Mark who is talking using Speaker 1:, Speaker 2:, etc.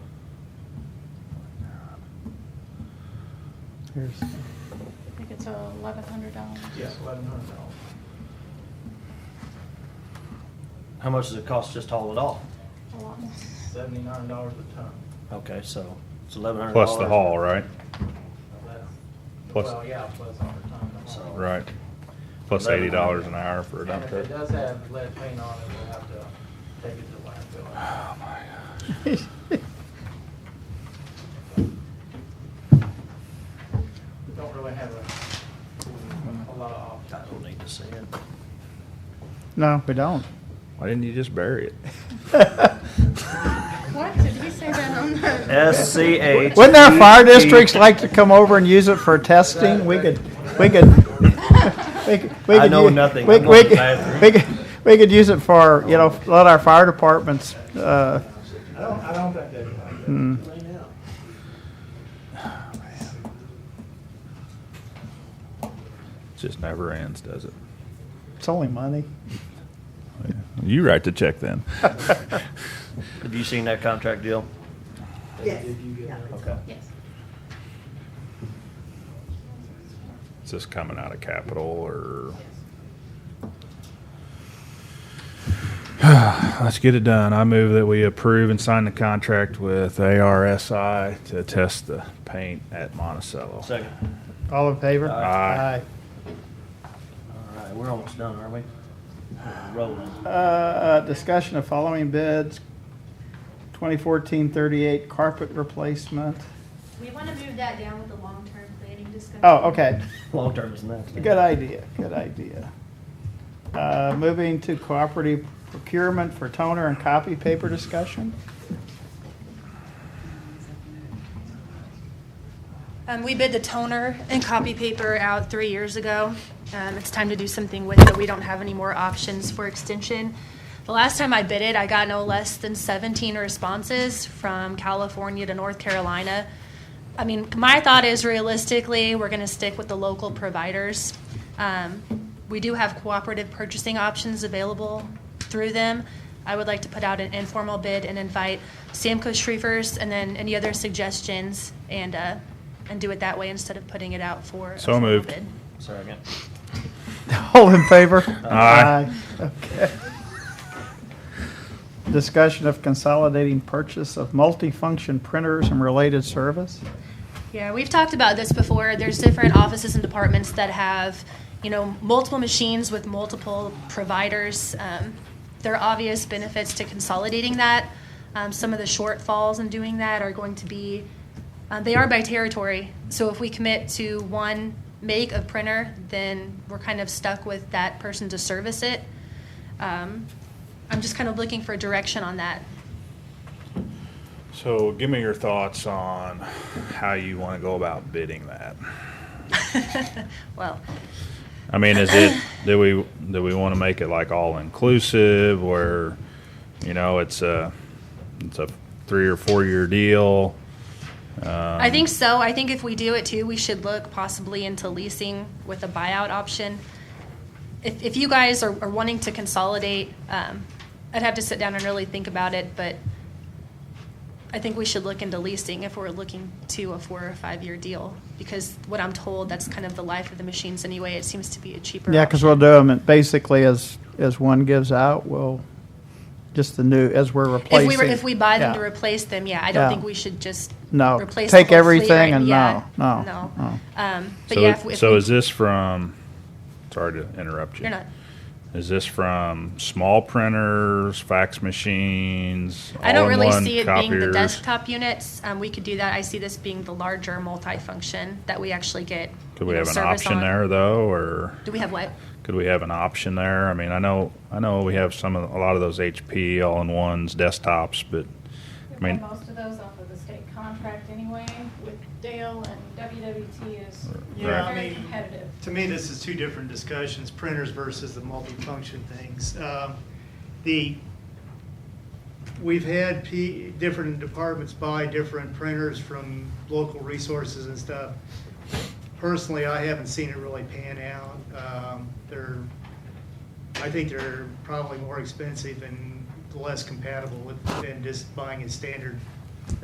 Speaker 1: Here's,
Speaker 2: I think it's eleven hundred dollars.
Speaker 3: Yes, eleven hundred dollars.
Speaker 4: How much does it cost just to haul it off?
Speaker 2: A lot more.
Speaker 3: Seventy-nine dollars a ton.
Speaker 4: Okay, so it's eleven hundred dollars.
Speaker 5: Plus the haul, right?
Speaker 3: Less.
Speaker 5: Plus-
Speaker 3: Well, yeah, plus all the time. to haul.
Speaker 4: So-
Speaker 5: Right. Plus eighty dollars an hour for a
Speaker 3: And
Speaker 5: dump
Speaker 3: if it
Speaker 5: truck.
Speaker 3: does have lead paint on it, we'll have to take it to the landfill.
Speaker 5: Oh,
Speaker 3: We Don't really have a, a lot of
Speaker 4: I
Speaker 3: options.
Speaker 4: don't need to see it.
Speaker 1: no, we don't.
Speaker 5: Why didn't you just bury it?
Speaker 2: What, did he say that on the?
Speaker 4: S C H.
Speaker 1: Wouldn't our fire districts like to come over and use it for testing? We could, we could. we could- we
Speaker 4: I
Speaker 1: could
Speaker 4: know
Speaker 1: u-
Speaker 4: nothing.
Speaker 1: We,
Speaker 4: I'm
Speaker 1: we
Speaker 4: not
Speaker 1: could-
Speaker 4: bathroom.
Speaker 1: we could, we could use it for, you know, let our fire departments, uh,
Speaker 3: I don't, I don't think they'd like
Speaker 1: Hmm.
Speaker 3: that right now.
Speaker 5: Just never ends, does it?
Speaker 1: it's only money.
Speaker 5: You write the check then.
Speaker 4: Have you seen that contract deal?
Speaker 6: Yes.
Speaker 3: Did you get
Speaker 6: Yeah.
Speaker 3: it?
Speaker 4: Okay.
Speaker 2: Yes.
Speaker 5: Is this coming out of capital or? Let's get it done. I move that we approve and sign the contract with ARSI to test the paint at Monticello.
Speaker 4: Second.
Speaker 1: All in favor?
Speaker 5: Aye.
Speaker 4: All right, we're almost done, aren't we? We're Rolling.
Speaker 1: Aye. Uh, discussion of following bids, 2014-38 carpet replacement.
Speaker 7: We want to move that down with the long-term planning discussion.
Speaker 1: Oh, okay.
Speaker 4: Long term is next.
Speaker 1: Good idea, good idea. Uh, Moving to cooperative procurement for toner and copy paper discussion?
Speaker 7: Um, we bid the toner and copy paper out three years ago. Um, it's time to do something with it. We don't have any more options for extension. The last time I bid it, I got no less than 17 responses from California to North Carolina. I mean, my thought is realistically, we're going to stick with the local providers. Um, we do have cooperative purchasing options available through them. I would like to put out an informal bid and invite Samco Shreevers and then any other suggestions and, uh, and do it that way instead of putting it out for. a
Speaker 5: So
Speaker 7: formal
Speaker 5: moved.
Speaker 7: bid.
Speaker 4: Second.
Speaker 1: All in favor?
Speaker 5: Aye.
Speaker 1: Okay. Discussion of consolidating purchase of multifunction printers and related service?
Speaker 7: Yeah, we've talked about this before. There's different offices and departments that have, you know, multiple machines with multiple providers. Um, there are obvious benefits to consolidating that. Um, some of the shortfalls in doing that are going to be, uh, they are by territory. So if we commit to one make of printer, then we're kind of stuck with that person to service it. Um, I'm just kind of looking for direction on that.
Speaker 5: So give me your thoughts on how you want to go about bidding that.
Speaker 7: well,
Speaker 5: I mean, is it, do we, do we want to make it like all inclusive where, you know, it's a, it's a three or four year deal? Um,
Speaker 7: I think so. I think if we do it too, we should look possibly into leasing with a buyout option. If, if you guys are, are wanting to consolidate, um, I'd have to sit down and really think about it, but I think we should look into leasing if we're looking to a four or five year deal, because what I'm told, that's kind of the life of the machines anyway. It seems to be a cheaper.
Speaker 1: Yeah, because
Speaker 7: option.
Speaker 1: we'll do them, basically as, as one gives out, we'll, just the new, as we're replacing.
Speaker 7: If we were, if we buy them to
Speaker 1: Yeah.
Speaker 7: replace them, yeah, I
Speaker 1: Yeah.
Speaker 7: don't think we should just
Speaker 1: No,
Speaker 7: replace the
Speaker 1: take
Speaker 7: whole fleet
Speaker 1: everything
Speaker 7: right-
Speaker 1: and
Speaker 7: yeah,
Speaker 1: no, no, no.
Speaker 7: no. Um, but
Speaker 5: So-
Speaker 7: yeah, if we- if
Speaker 5: So
Speaker 7: we-
Speaker 5: is this from, sorry to interrupt you.
Speaker 7: You're not.
Speaker 5: Is this from small printers, fax machines?
Speaker 7: I don't really
Speaker 5: all-in-one
Speaker 7: see it being the
Speaker 5: copiers?
Speaker 7: desktop units. Um, we could do that. I see this being the larger multi-function that we actually get.
Speaker 5: Could we
Speaker 7: you know,
Speaker 5: have an
Speaker 7: service
Speaker 5: option
Speaker 7: on.
Speaker 5: there though, or
Speaker 7: Do we have what?
Speaker 5: could we have an option there? I mean, I know, I know we have some, of a lot of those HP all-in-ones desktops, but
Speaker 2: We
Speaker 5: I mean-
Speaker 2: buy most of those off of the state contract anyway with Dale and WWT is
Speaker 5: Right.
Speaker 8: Yeah, I
Speaker 2: very
Speaker 8: mean,
Speaker 2: competitive.
Speaker 8: to me, this is two different discussions, printers versus the multifunction things. Um, The, we've had P, different departments buy different printers from local resources and stuff. Personally, I haven't seen it really pan out. Um, They're, I think they're probably more expensive and less compatible with, than just buying a standard